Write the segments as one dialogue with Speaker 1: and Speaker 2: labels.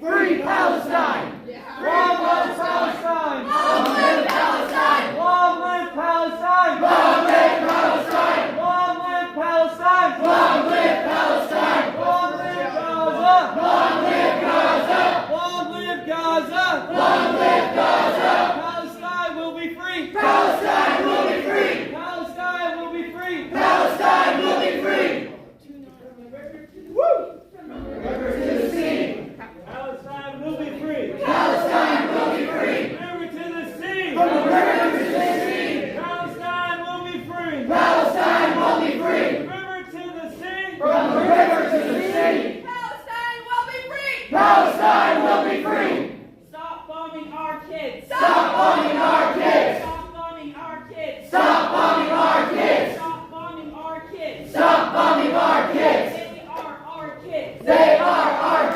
Speaker 1: Free Palestine!
Speaker 2: Long live Palestine! Long live Palestine! Long live Palestine! Long live Palestine! Long live Gaza! Palestine will be free! Palestine will be free! Palestine will be free! River to the sea! From the river to the sea! Palestine will be free! Palestine will be free! River to the sea! From
Speaker 1: Palestine will be free!
Speaker 3: Stop bombing our kids. Stop bombing our kids. Stop bombing our kids. Stop bombing our kids. Stop bombing our kids. Stop bombing our kids. They are our kids. They are our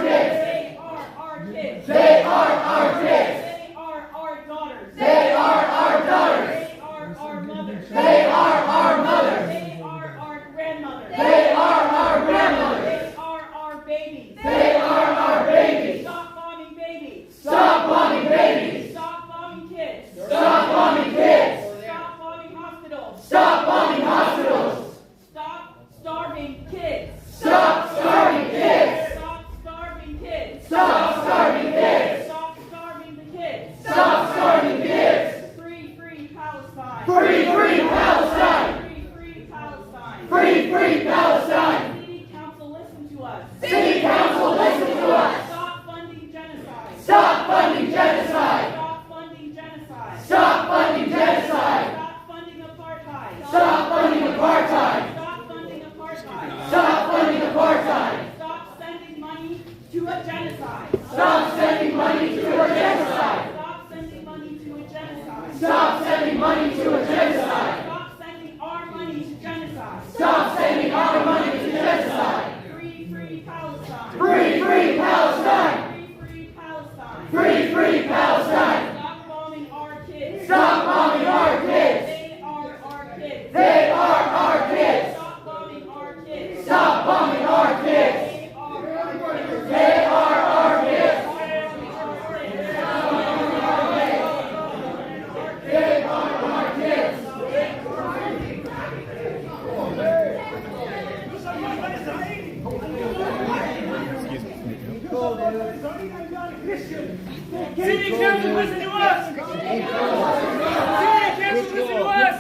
Speaker 3: kids. They are our kids. They are our kids. They are our daughters. They are our daughters. They are our mothers. They are our mothers. They are our grandmothers. They are our grandmothers. They are our babies. They are our babies. Stop bombing babies. Stop bombing kids. Stop bombing kids. Stop bombing hospitals. Stop bombing hospitals. Stop starving kids. Stop starving kids. Stop starving kids. Stop starving kids. Stop starving the kids. Stop starving kids. Free, free Palestine. Free, free Palestine. Free, free Palestine. Free, free Palestine. City council, listen to us. City council, listen to us. Stop funding genocide.
Speaker 1: Stop funding genocide!
Speaker 3: Stop funding genocide.
Speaker 1: Stop funding genocide!
Speaker 3: Stop funding apartheid.
Speaker 1: Stop funding apartheid!
Speaker 3: Stop funding apartheid.
Speaker 1: Stop funding apartheid!
Speaker 3: Stop sending money to a genocide.
Speaker 1: Stop sending money to a genocide!
Speaker 3: Stop sending money to a genocide.
Speaker 1: Stop sending money to a genocide!
Speaker 3: Stop sending our money to genocide.
Speaker 1: Stop sending our money to genocide!
Speaker 3: Free, free Palestine.
Speaker 1: Free, free Palestine!
Speaker 3: Free, free Palestine.
Speaker 1: Free, free Palestine!
Speaker 3: Stop bombing our kids.
Speaker 1: Stop bombing our kids!
Speaker 3: They are our kids.
Speaker 1: They are our kids!
Speaker 3: Stop bombing our kids.
Speaker 1: Stop bombing our kids!
Speaker 3: They are our kids.
Speaker 1: They are our kids! They are our kids!
Speaker 2: City council, listen to us! City council, listen to us!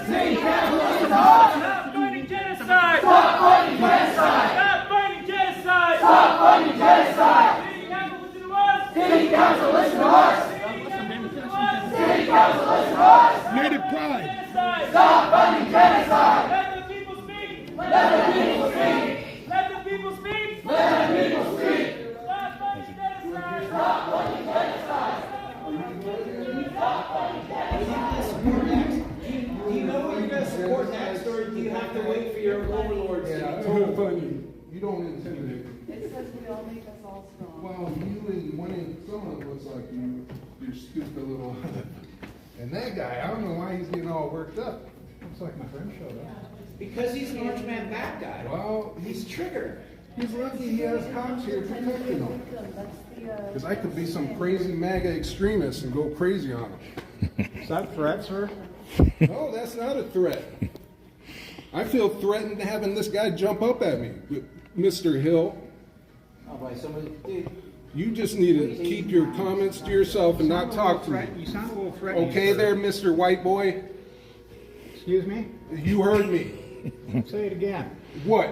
Speaker 2: Stop fighting genocide! Stop fighting genocide! Stop fighting genocide! City council, listen
Speaker 1: City council, listen
Speaker 2: to us!
Speaker 1: to us!
Speaker 2: City council, listen to us!
Speaker 4: Native pride.
Speaker 2: Genocide!
Speaker 1: Stop funding genocide!
Speaker 2: Let the people speak!
Speaker 1: Let the people speak!
Speaker 2: Let the people speak!
Speaker 1: Let the people speak!
Speaker 2: Stop fighting genocide!
Speaker 5: Do you know what you're gonna support next, or do you have to wait for your overlords?
Speaker 4: It's all funny. You don't intimidate.
Speaker 6: It says we all make us all strong.
Speaker 4: Well, you and one of some of looks like you, you stupid little. And that guy, I don't know why he's getting all worked up. Looks like my friend showed up.
Speaker 5: Because he's an orange man bad guy.
Speaker 4: Well,
Speaker 5: He's triggered.
Speaker 4: he's lucky he has cops here protecting him.
Speaker 6: That's the, uh.
Speaker 4: Because I could be some crazy MAGA extremist and go crazy on him.
Speaker 7: Is that threat, sir?
Speaker 4: No, that's not a threat. I feel threatened having this guy jump up at me, Mr. Hill.
Speaker 5: Oh, boy, somebody, dude,
Speaker 4: You just need to keep your comments to yourself and not talk to me.
Speaker 7: You sound a little threatening.
Speaker 4: Okay
Speaker 7: sir.
Speaker 4: there, Mr. White Boy?
Speaker 7: Excuse me?
Speaker 4: You heard me.
Speaker 7: Say it again.
Speaker 4: What?